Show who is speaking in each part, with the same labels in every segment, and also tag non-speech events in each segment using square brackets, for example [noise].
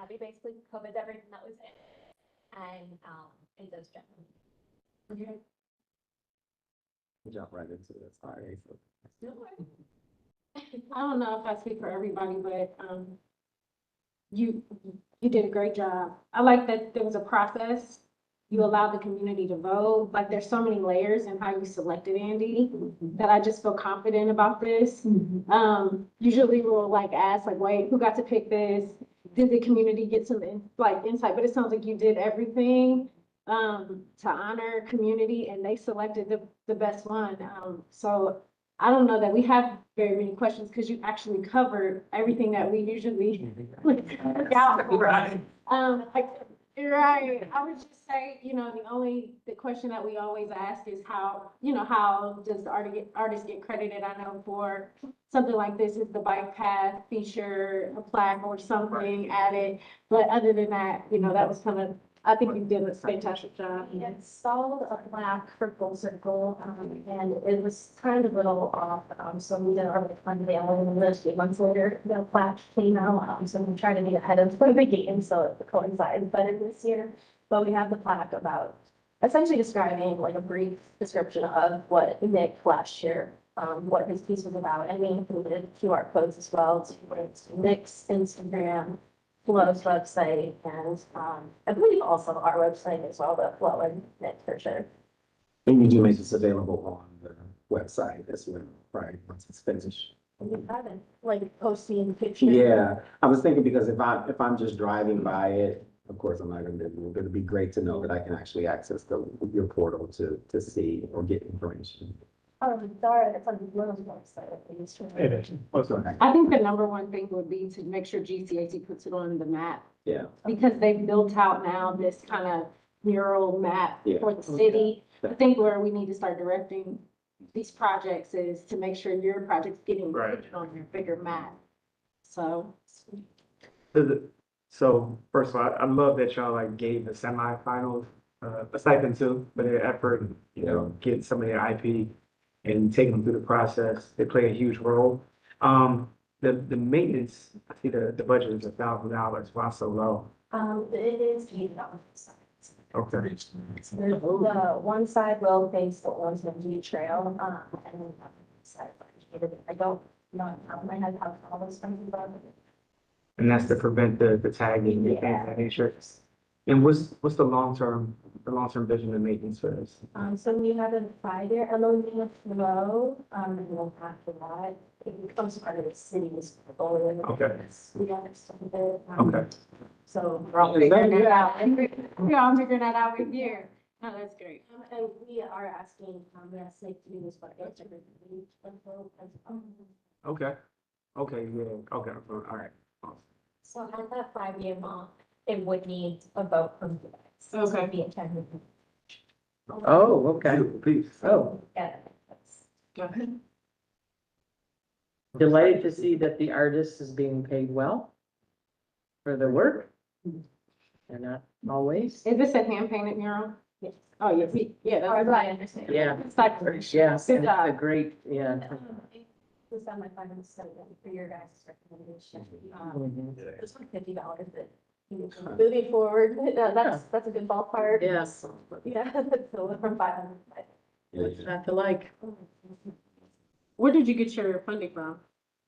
Speaker 1: Abby basically covers everything that was in it and, um, it does generally.
Speaker 2: Okay.
Speaker 3: Jump right into it, sorry.
Speaker 2: I don't know if I speak for everybody, but, um, you, you did a great job. I like that there was a process. You allowed the community to vote. Like, there's so many layers in how you selected Andy that I just feel confident about this. Um, usually we'll like ask like, wait, who got to pick this? Did the community get some in- like insight? But it sounds like you did everything um, to honor community and they selected the, the best one. Um, so I don't know that we have very many questions because you actually covered everything that we usually [laughs] look out for. Um, like, you're right, I would just say, you know, the only, the question that we always ask is how, you know, how does the artist, artist get credited? I know for something like this is the bike path feature, a plaque or something added. But other than that, you know, that was kind of, I think you did a fantastic job.
Speaker 1: We installed a plaque for Full Circle, um, and it was kind of a little off, um, so we did our like, unveiling, and then a few months later, the plaque came out, um, so we tried to be ahead of [laughs] the game, so it coincides better this year. But we have the plaque about essentially describing like a brief description of what Nick last year, um, what his piece was about, and we included QR codes as well to Nick's Instagram, Flow's website and, um, I believe also our website as well, but Flow and Knit for sure.
Speaker 3: And you do make this available on the website as well, right, once it's finished.
Speaker 1: And we haven't, like, posting pictures.
Speaker 3: Yeah, I was thinking because if I, if I'm just driving by it, of course, I'm not gonna, be- but it'd be great to know that I can actually access the, your portal to, to see or get information.
Speaker 1: Um, Dara, that's on Flow's website, at least.
Speaker 3: It is.
Speaker 2: I think the number one thing would be to make sure GCAC puts it on the map.
Speaker 3: Yeah.
Speaker 2: Because they've built out now this kind of mural map
Speaker 3: Yeah.
Speaker 2: for the city. I think where we need to start directing these projects is to make sure your project's getting
Speaker 4: Right.
Speaker 2: put on your bigger map. So,
Speaker 4: Does it- So first of all, I love that y'all like gave the semifinals uh, a stipend too for their effort, you know, getting some of their IP and taking them through the process. They play a huge role. Um, the, the maintenance, I see the, the budget is a thousand dollars. Why so low?
Speaker 1: Um, it is paid on the side.
Speaker 4: Okay.
Speaker 1: The the one side will face the Orangeman Trail, um, and then the other side, I don't know, I might have all those things about it.
Speaker 4: And that's to prevent the, the tagging and things of that nature. And what's, what's the long-term, the long-term vision of maintenance for this?
Speaker 1: Um, so we have a five-year MOU with Flow, um, and then after that, it becomes part of the city's portfolio.
Speaker 4: Okay.
Speaker 1: We got some there.
Speaker 4: Okay.
Speaker 1: So we're all
Speaker 3: Is that
Speaker 1: figuring
Speaker 3: good?
Speaker 1: it out.
Speaker 2: [laughs] we're all figuring that out with you. No, that's great.
Speaker 1: Um, And we are asking, um, we asked Nick to do this, but it's a good week. um,
Speaker 4: Okay. Okay, yeah, okay, all right.
Speaker 1: So at that five-year mark, it would need a vote from you guys.
Speaker 2: Okay.
Speaker 1: Be attended.
Speaker 3: Oh, okay.
Speaker 4: Peace.
Speaker 3: Oh,
Speaker 1: Yeah. that's-
Speaker 5: Delighted to see that the artist is being paid well for the work. And not always,
Speaker 2: Is this a hand painted mural?
Speaker 1: Yes.
Speaker 2: Oh, yeah, we- yeah.
Speaker 1: Or
Speaker 2: that's-
Speaker 1: do I understand?
Speaker 5: Yeah.
Speaker 2: It's like,
Speaker 5: yes,
Speaker 2: Good
Speaker 5: and
Speaker 2: job.
Speaker 5: it's a great, yeah.
Speaker 1: um, This on my final statement for your guys' recommendation.
Speaker 4: Mm-hmm.
Speaker 1: Um,
Speaker 5: Mhm.
Speaker 1: It's like fifty dollars, but moving forward, [laughs] uh, that's, that's a good ballpark.
Speaker 5: Yes.
Speaker 1: Yeah, [laughs] so from five hundred.
Speaker 5: What's not to like?
Speaker 2: Where did you get your funding from?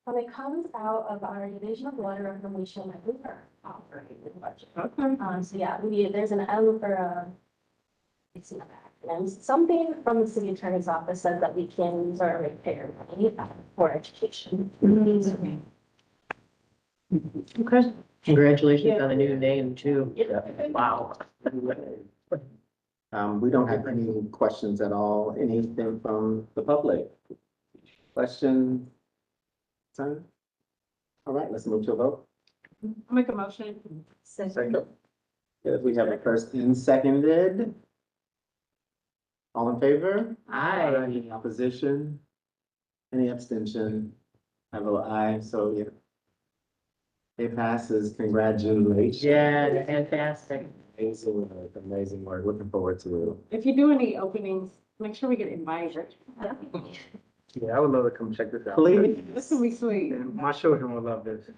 Speaker 1: Well, it comes out of our division of water reclamation that we are operating the budget.
Speaker 2: Okay.
Speaker 1: Um, so yeah, we, there's an M or a. It's not acronym, something from the city attorney's office said that we can use our ratepayer money uh, for education.
Speaker 5: Okay. Congratulations on the new name too. Wow.
Speaker 3: Um, we don't have any questions at all, anything from the public? Question? Time? All right, let's move to a vote.
Speaker 2: I'll make a motion.
Speaker 3: Second. If we have a first and seconded. All in favor?
Speaker 5: Hi.
Speaker 3: Any opposition? Any abstention? I vote aye, so yeah. It passes, congratulations.
Speaker 5: Yeah, fantastic.
Speaker 3: Amazing, work, uh, amazing work, looking forward to
Speaker 2: If you do any openings, make sure we get invited.
Speaker 4: Yeah, I would love to come check this
Speaker 3: it.
Speaker 4: out.
Speaker 3: Please.
Speaker 2: This would be sweet.
Speaker 4: My children will love this.